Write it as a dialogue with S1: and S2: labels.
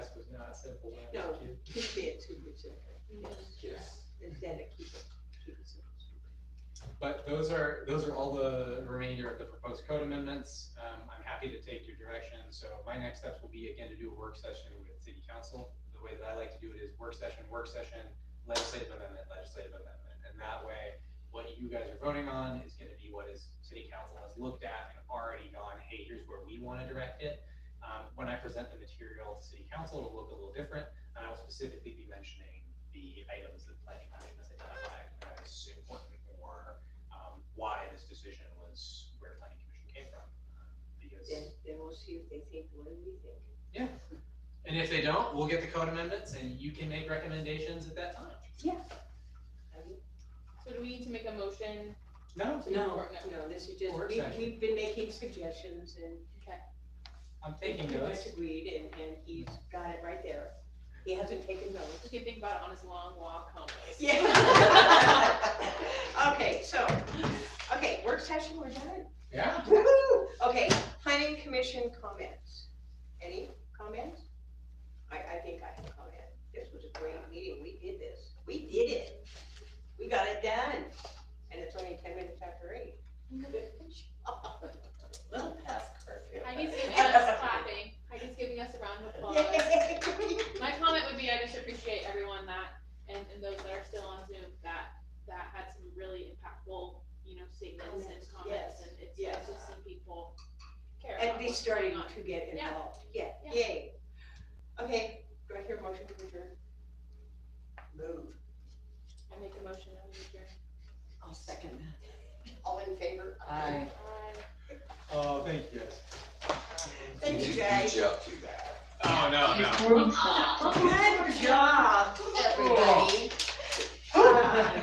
S1: simple. one.
S2: No.
S1: Thank you.
S2: He said too, Richard.
S1: Yes.
S2: Instead of keep it, keep it simple.
S1: But those are, those are all the remainder of the proposed code amendments. Um, I'm happy to take your direction. So my next steps will be again to do a work session with city council. The way that I like to do it is work session, work session, legislative amendment, legislative amendment. And that way, what you guys are voting on is gonna be what is city council has looked at and already gone, hey, here's where we wanna direct it. Um, when I present the material to city council, it'll look a little different. And I'll specifically be mentioning the items that planning commission has identified as important or um, why this decision was where planning commission came from.
S2: Then,
S1: Because,
S2: then we'll see if they think what we think.
S1: and if they don't, we'll get the code amendments and you can make recommendations at that time.
S2: I mean,
S3: So do we need to make a motion?
S1: No,
S2: No, no, this is just,
S1: Work
S2: we,
S1: session.
S2: we've been making suggestions and
S1: I'm
S2: he
S1: taking
S2: pretty
S1: those.
S2: much agreed and, and he's got it right there. He hasn't taken notes.
S3: Just can think about it on his long walk home.
S2: Yeah. Okay, so, okay, work session, we're done.
S1: Yeah,
S2: Woo-hoo. Okay, planning commission comments. Any comments? I, I think I have a comment. This was a great meeting. We did this. We did it. We got it done. And it's only ten minutes after eight. Little past curfew.
S3: Heidi's giving us clapping, Heidi's giving us a round of applause. My comment would be, I just appreciate everyone that, and, and those that are still on Zoom, that, that had some really impactful, you know, statements and
S2: Comments,
S3: comments,
S2: yes,
S3: and it's
S2: yes.
S3: nice to see people care
S2: And
S3: about
S2: be
S3: what's
S2: starting
S3: going on.
S2: to get
S3: Yeah.
S2: involved. Yeah,
S3: Yeah.
S2: yay. Okay, do I hear a motion to adjourn? Move.
S3: I make a motion, I'm adjourned.
S4: I'll second that.
S2: All in favor?
S4: Aye.
S1: oh, thank you. guys.
S2: Thank you, guys.
S1: Oh, no, no.
S4: We're-
S2: Good job.